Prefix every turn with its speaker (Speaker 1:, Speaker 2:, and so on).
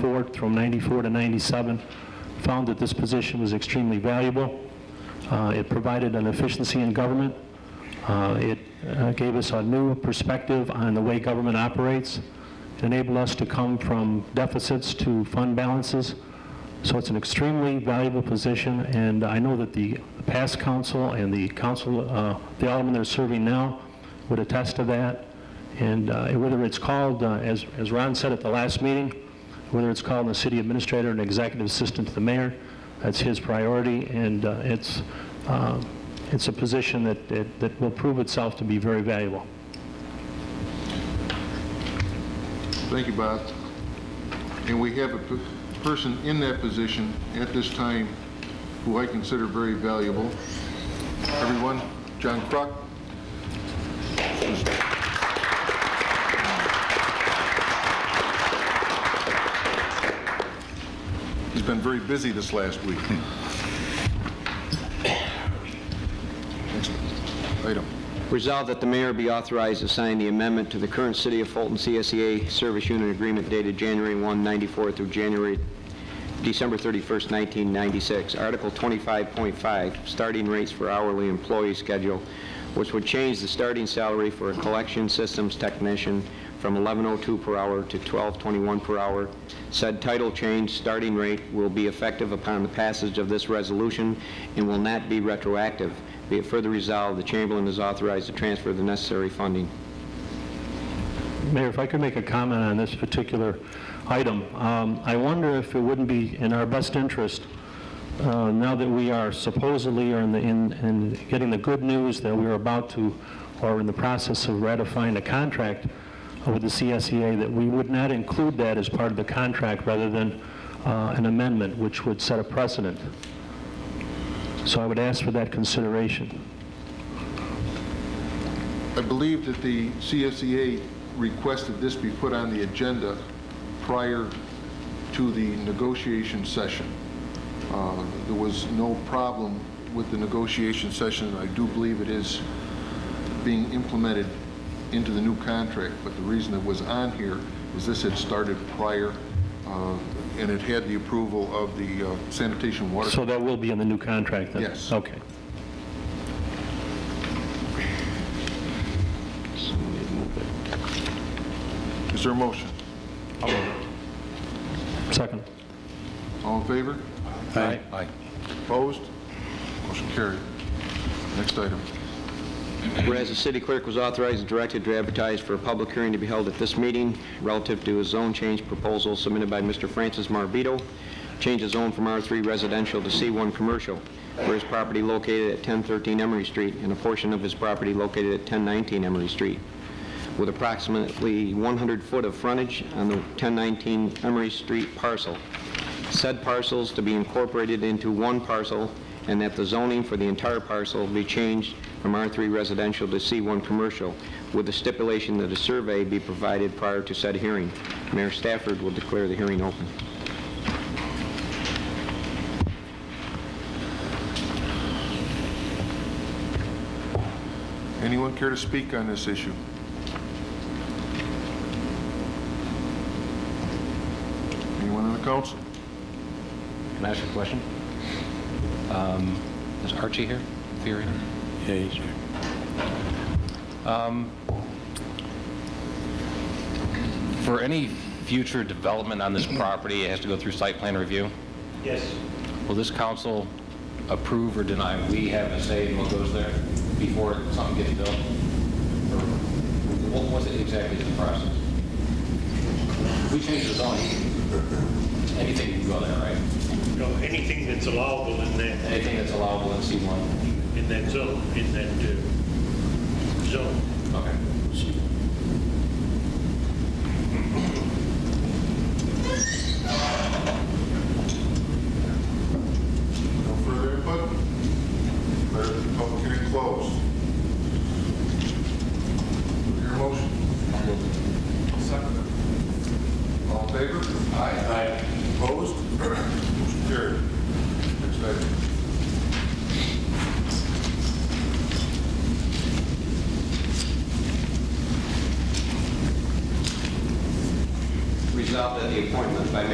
Speaker 1: 94, from 94 to 97, found that this position was extremely valuable. Uh, It provided an efficiency in government. Uh, It uh, gave us a new perspective on the way government operates. It enabled us to come from deficits to fund balances. So it's an extremely valuable position, and I know that the past council and the council, uh, the aldermen that are serving now would attest to that. And uh, whether it's called, uh, as as Ron said at the last meeting, whether it's called the city administrator and executive assistant to the mayor, that's his priority, and uh, it's, uh, it's a position that- that that will prove itself to be very valuable.
Speaker 2: Thank you, Bob. And we have a p- person in that position at this time who I consider very valuable. Everyone, John Kruk. He's been very busy this last week. Next Item.
Speaker 3: Resolved that the mayor be authorized to sign the amendment to the current City of Fulton CSEA Service Unit Agreement dated January 1, 94 through January, December 31st, 1996. Article 25.5, starting rates for hourly employee schedule, which would change the starting salary for a collection systems technician from 11.02 per hour to 12.21 per hour. Said title change, starting rate, will be effective upon the passage of this resolution and will not be retroactive. Be it further resolved, the Chamberlain is authorized to transfer the necessary funding.
Speaker 1: Mayor, if I could make a comment on this particular item. Um, I wonder if it wouldn't be in our best interest, uh, now that we are supposedly are in the, in, in getting the good news that we're about to, or in the process of ratifying a contract uh, with the CSEA, that we would not include that as part of the contract rather than uh, an amendment, which would set a precedent. So I would ask for that consideration.
Speaker 2: I believe that the CSEA requested this be put on the agenda prior to the negotiation session. Uh, There was no problem with the negotiation session, and I do believe it is being implemented into the new contract, but the reason it was on here is this had started prior, uh, and it had the approval of the uh, sanitation water.
Speaker 1: So that will be in the new contract then?
Speaker 2: Yes.
Speaker 1: Okay.
Speaker 2: Is there a motion?
Speaker 1: Second.
Speaker 2: All in favor?
Speaker 1: Aye.
Speaker 2: Opposed? Motion carried. Next item.
Speaker 3: Whereas the city clerk was authorized and directed to advertise for a public hearing to be held at this meeting relative to a zone change proposal submitted by Mr. Francis Marbito, change the zone from R3 residential to C1 commercial, for his property located at 1013 Emery Street and a portion of his property located at 1019 Emery Street, with approximately 100 foot of frontage on the 1019 Emery Street parcel said parcels to be incorporated into one parcel, and that the zoning for the entire parcel be changed from R3 residential to C1 commercial, with the stipulation that a survey be provided prior to said hearing. Mayor Stafford will declare the hearing open.
Speaker 2: Anyone care to speak on this issue? Anyone on the council?
Speaker 4: Can I ask a question? Um, Is Archie here? Theory?
Speaker 5: Yeah, he's here.
Speaker 4: Um, For any future development on this property, it has to go through site plan review?
Speaker 6: Yes,
Speaker 4: Will this council approve or deny? We have a say in what goes there before something gets built? Or what was it exactly the process? If we change the zoning, anything can go there, right?
Speaker 6: no, anything that's allowable in that,
Speaker 4: Anything that's allowable in C1?
Speaker 6: in that zone, in that uh, zone.
Speaker 4: Okay.
Speaker 2: No further input? Declare the public hearing closed. Your motion? Second. All in favor? Aye. Opposed? Motion carried. Next item.
Speaker 3: Resolved that the appointment by Mayor